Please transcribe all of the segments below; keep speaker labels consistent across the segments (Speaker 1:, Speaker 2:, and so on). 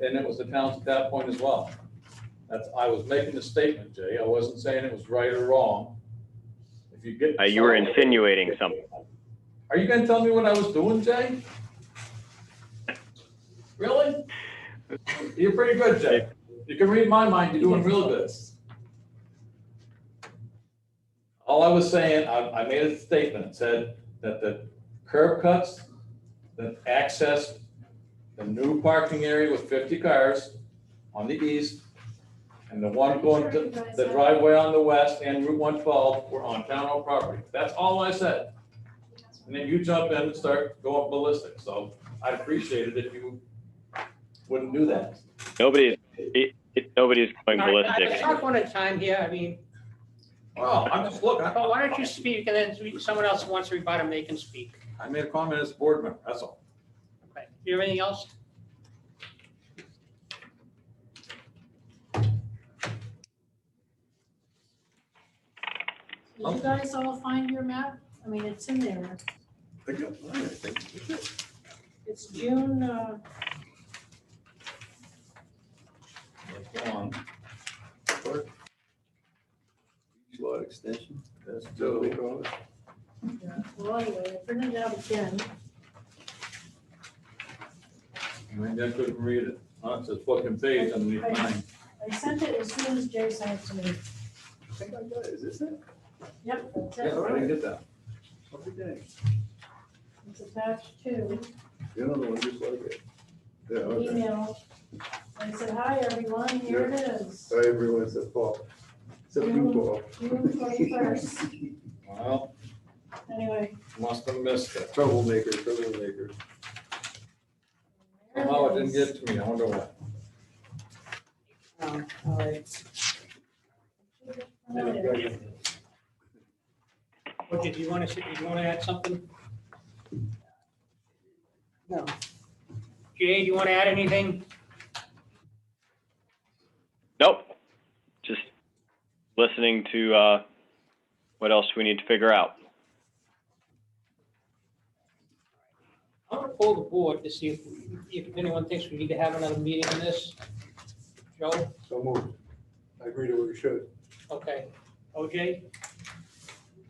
Speaker 1: and it was the town's at that point as well. That's, I was making a statement, Jay. I wasn't saying it was right or wrong. If you get.
Speaker 2: Uh, you were
Speaker 1: someone-
Speaker 2: insinuating something.
Speaker 1: Are you gonna tell me what I was doing, Jay? Really? You're pretty good, Jay. You can read my mind, you're doing real good. All I was saying, I, I made a statement, It said that the curb cuts, the access, the new parking area with fifty cars on the east, and the one going to the driveway on the west and Route one twelve were on town owned property. That's all I said. And then you jump in and start going ballistic, so I appreciate it if you wouldn't do that.
Speaker 2: Nobody's, it, it, nobody's going ballistic.
Speaker 3: Talk one at a time here, I mean,
Speaker 1: Well, I'm just, look, I
Speaker 3: but why don't you speak and then we- someone else who wants to rebut him, they can speak.
Speaker 1: I made a comment as a board member, that's all.
Speaker 3: Okay. You have anything else?
Speaker 4: Did you guys all find your map? I mean, it's in there.
Speaker 5: I got mine, I think.
Speaker 4: It's June, uh,
Speaker 1: Come on,
Speaker 5: Beach Lot extension.
Speaker 1: let's
Speaker 5: So we
Speaker 1: do,
Speaker 5: call it.
Speaker 4: well, anyway, I printed it out again.
Speaker 1: I mean, I couldn't read it, Oh, it's a fucking page underneath mine.
Speaker 4: I sent it as soon as Jay sent it to me.
Speaker 5: I think I got it. Is this it?
Speaker 4: Yep, that's
Speaker 1: Yeah,
Speaker 4: it.
Speaker 1: I didn't get that.
Speaker 5: Every day.
Speaker 4: It's attached to
Speaker 5: The other one just like it. Yeah,
Speaker 4: the
Speaker 5: okay.
Speaker 4: email. I said, hi, everyone, here it is,
Speaker 5: So everyone said Paul. Except you, Paul.
Speaker 4: June twenty-first.
Speaker 1: Well,
Speaker 4: Anyway,
Speaker 1: must have missed it.
Speaker 5: Troublemaker, troublemaker.
Speaker 4: there
Speaker 1: Somehow it
Speaker 4: it
Speaker 1: didn't
Speaker 4: is.
Speaker 1: get to me, I wonder why.
Speaker 4: Um, all right.
Speaker 5: Yeah, I got it.
Speaker 3: Or did you want to, did you want to add something?
Speaker 6: No.
Speaker 3: Jay, do you want to add anything?
Speaker 2: Nope. Just listening to, uh, what else we need to figure out.
Speaker 3: I'm gonna pull the board to see if, if anyone thinks we need to have another meeting on this. Joe,
Speaker 5: So moved. I agree to what you should.
Speaker 3: okay. OJ,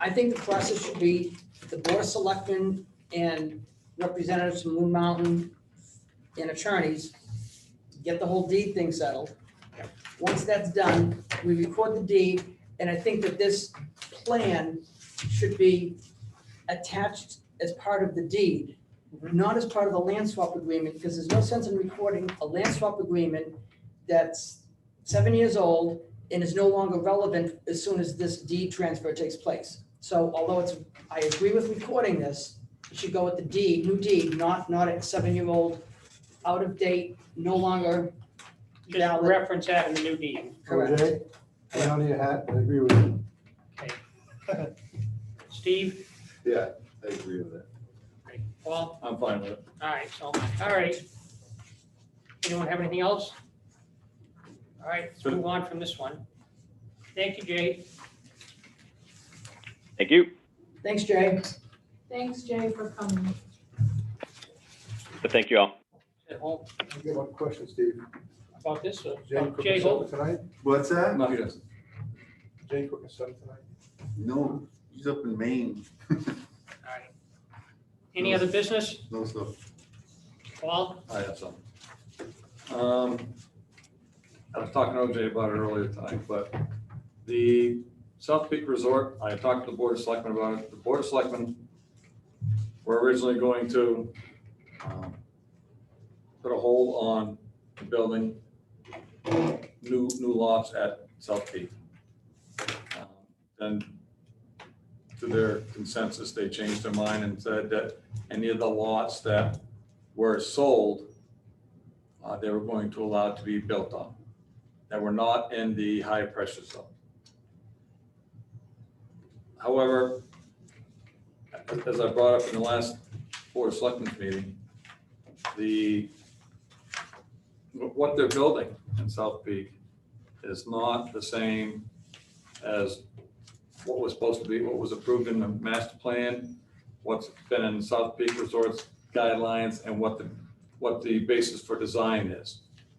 Speaker 6: I think the process should be the Board of Selectmen and representatives from Moon Mountain and attorneys, get the whole deed thing settled. Once that's done, we record the deed, and I think that this plan should be attached as part of the deed, not as part of the land swap agreement, because there's no sense in recording a land swap agreement that's seven years old and is no longer relevant as soon as this deed transfer takes place. So although it's, I agree with recording this, it should go with the deed, new deed, not, not a seven-year-old, out of date, no longer
Speaker 3: just
Speaker 6: valid.
Speaker 3: reference that in the new meeting.
Speaker 6: Correct.
Speaker 7: OJ, I don't need a hat, I agree with you.
Speaker 3: Steve,
Speaker 5: Yeah, I agree with that.
Speaker 3: Okay. Paul,
Speaker 1: I'm fine with it.
Speaker 3: all right, so, all right. Anyone have anything else? All right, let's move on from this one. Thank you, Jay.
Speaker 2: Thank you.
Speaker 6: Thanks, Jay.
Speaker 4: Thanks, Jay, for coming.
Speaker 2: But thank you all.
Speaker 3: At home
Speaker 7: I got one question, Steve.
Speaker 3: about this, or-
Speaker 7: Jane cooking
Speaker 3: Jay, hold.
Speaker 7: something tonight?
Speaker 5: What's that?
Speaker 1: No, he doesn't.
Speaker 7: Jay cooking something tonight?
Speaker 5: No, he's up in Maine.
Speaker 3: All right. Any other business?
Speaker 5: No stuff.
Speaker 3: Paul,
Speaker 1: I have some. Um, I was talking to OJ about it earlier tonight, but the South Peak Resort, I talked to the Board of Selectmen about it. The Board of Selectmen were originally going to um, put a hold on building new, new lots at South Peak. Um, Then to their consensus, they changed their mind and said that any of the lots that were sold, uh, they were going to allow to be built on, that were not in the high pressure zone. However, as I brought up in the last Board of Selectmen's meeting, the, what they're building in South Peak is not the same as what was supposed to be, what was approved in the master plan, what's been in South Peak Resorts guidelines and what the, what the basis for design is.